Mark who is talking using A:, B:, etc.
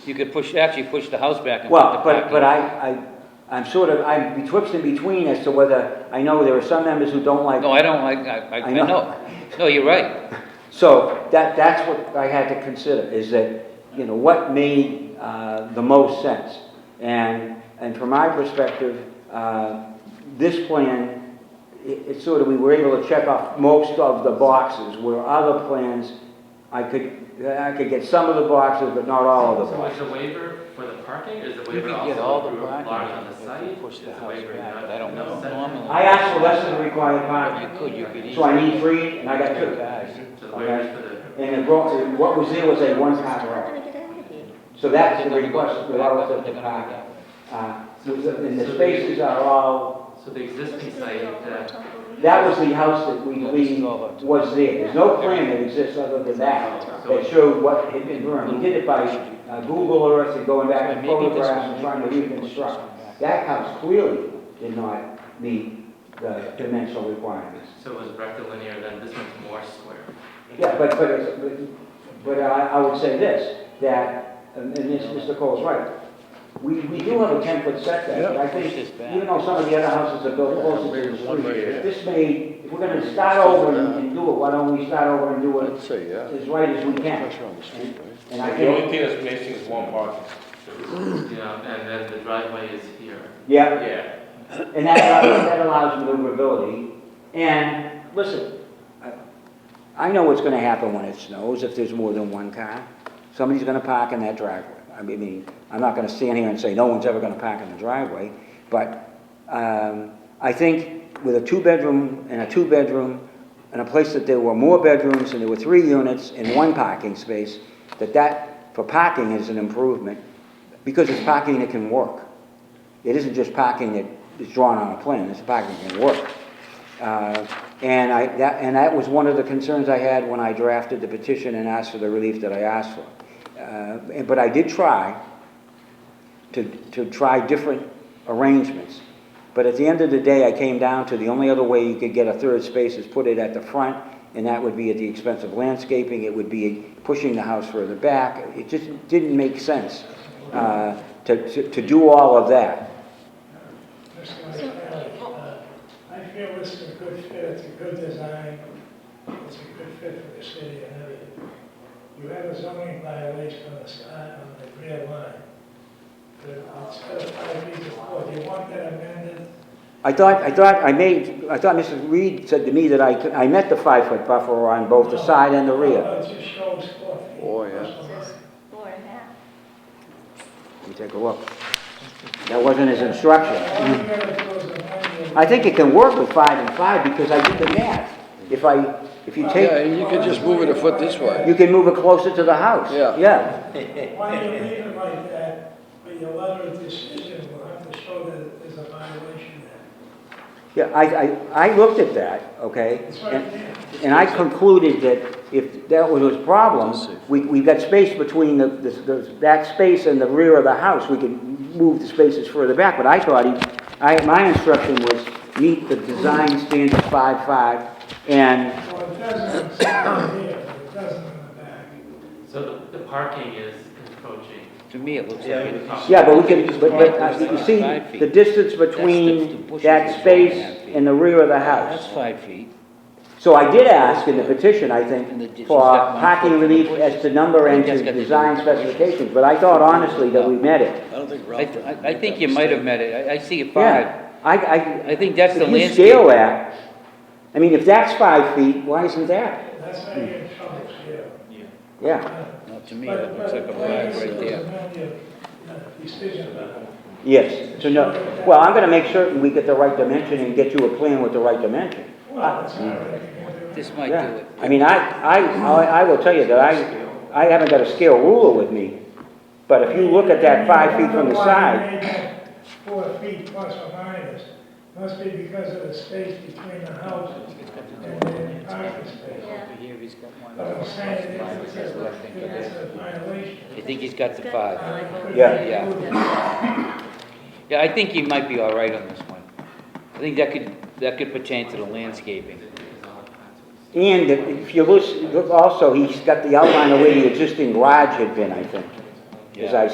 A: You could push, actually push the house back and put the
B: Well, but,
A: parking.
B: but I, I, I'm sort of, I'm betwixt and between as to whether, I know there are some members who don't like.
A: No, I don't, I, I, I
B: I
A: I
B: know.
A: know. No, you're right.
B: So that, that's what I had to consider, is that, you know, what made uh, the most sense? And, and from my perspective, uh, this plan, it- it's sort of, we were able to check off most of the boxes, where other plans, I could, I could get some of the boxes, but not all of the
C: So is
B: boxes.
C: the waiver for the parking, is the
A: You
C: waiver
A: could get all
C: also
A: the
C: approved
A: parking
C: large on
A: if
C: the
A: you
C: site?
A: push the
C: Is
A: house
C: waiver
A: back,
C: not-
A: but I don't
C: no
A: know.
C: setback?
A: Normally-
B: I asked for less than the required
A: You
B: amount,
A: could, you could easily.
B: so I need three, and I got two.
C: So the
B: Okay.
C: waivers for the,
B: And it brought, what was there was a one-time
D: We're
B: error.
D: gonna get out of here.
B: So that's
A: They're
B: the
A: gonna go
B: request
A: back up,
B: relative
A: they're gonna go
B: to parking.
A: that way.
B: Uh, And the spaces are all,
C: so the existing
D: This is gonna
C: site,
D: be all
C: that,
D: top of the-
B: that was the house that we
A: Yeah, this is
B: believe
A: all about-
B: was there. There's no plan that exists other than that, that showed what had been burned. We did it by uh, Google Earth and going back and
A: Maybe this
B: photographs
A: one,
B: and
A: maybe
B: trying to
A: we should push this
B: reconstruct.
A: one back.
B: That house clearly did not meet the dimensional requirements.
C: so it was rectilinear, then this one's more square.
B: Yeah, but, but, it's- but- but I, I would say this, that, and and this, Mr. Cole's right, we, we do have a ten foot setback, but I
A: Push this
B: think,
A: back.
B: even though some of the other houses are built closer to the
E: One
B: street,
E: way, yeah.
B: if this may, if we're gonna start over and and do it, why don't we start over and do
E: I'd
B: it
E: say, yeah.
B: as right as we can?
E: Pressure on the street, right?
B: And I
F: The only
B: think,
F: thing that's missing is one parking.
C: You know, and then the driveway is here.
B: yeah,
F: Yeah.
B: and that, allows- that allows maneuverability, and, listen, I- I know what's gonna happen when it snows, if there's more than one car, somebody's gonna park in that driveway. I mean, I'm not gonna stand here and say no one's ever gonna park in the driveway, but, um, I think with a two-bedroom and a two-bedroom, and a place that there were more bedrooms and there were three units and one parking space, that that, for parking is an improvement, because it's parking that can work. It isn't just parking that is drawn on a plan, it's parking that can work. Uh, And I, that, and that was one of the concerns I had when I drafted the petition and asked for the relief that I asked for. Uh, and- But I did try to, to try different arrangements. But at the end of the day, I came down to the only other way you could get a third space is put it at the front, and that would be at the expense of landscaping, it would be pushing the house further back. It just didn't make sense uh, to, to to do all of that.
G: I feel this is a good fit, it's a good design, it's a good fit for the city and everything. You have a zoning violation on the side, on the rear line. But it's got five feet to four, do you want that amended?
B: I thought, I thought I made, I thought Mrs. Reed said to me that I, could- I met the five-foot buffer on both the side and the rear.
G: No, It just shows four feet.
E: Oh, yeah.
D: It says four and a half.
B: Let me take a look. That wasn't his instruction.
G: All you gotta do is amend
B: I think it can work with five and five because I did the math. If I, if you
E: Yeah,
B: take,
E: and you could just move it a foot this way.
B: you can move it closer to the house.
E: Yeah.
B: Yeah,
G: it. Why you leave it like that, but your letter of decision will have to show that there's a violation there.
B: yeah, I, I, I looked at that, okay?
G: It's
B: and-
G: right there.
B: And I concluded that if that was a problem, we, we've got space between the, the- the, that space and the rear of the house, we can move the spaces further back, but I thought he, I, my instruction was meet the design standard five, five, and,
G: Well, it doesn't, it's not here, it doesn't in the back.
C: So the, the parking is encroaching.
A: To me, it looks like it.
B: yeah, but we can, but, but, uh, you see, the distance between that space and the rear of the
A: That's
B: house.
A: five feet.
B: So I did ask in the petition, I
A: And the
B: think,
A: distance
B: for
A: that one
B: parking
A: foot from the
B: relief
A: bushes.
B: as to number and
A: That's
B: to
A: got to do
B: design
A: with the bushes.
B: specifications, but I thought honestly that we met it.
E: I don't think
A: I,
E: Ralph.
A: I I think you might have met it. I, I see it five.
B: Yeah, I, I.
A: I think that's the
B: If you
A: landscape.
B: scale that, I mean, if that's five feet, why isn't that?
G: That's how you get in trouble, yeah.
B: Yeah,
A: No, to me, it looks like a flag right there.
G: Decision about
B: yes, so no, well, I'm gonna make certain we get the right dimension and get you a plan with the right dimension.
G: Well, that's not what you can do.
A: This might do
B: Yeah,
A: it.
B: I mean, I, I, I I will tell you that I, I haven't got a scale ruler with me, but if you look at that five feet from the side,
G: Four feet plus or minus, must be because of the space between the house and the parking space.
A: Over here, he's got one.
G: But I'm saying it's it's
A: I think it is.
G: a violation.
A: I think he's got the five.
B: Yeah.
A: Yeah, I think he might be all right on this one. I think that could, that could pertain to the landscaping.
B: and if you look, look also, he's got the outline of where the existing garage had been, I think, as I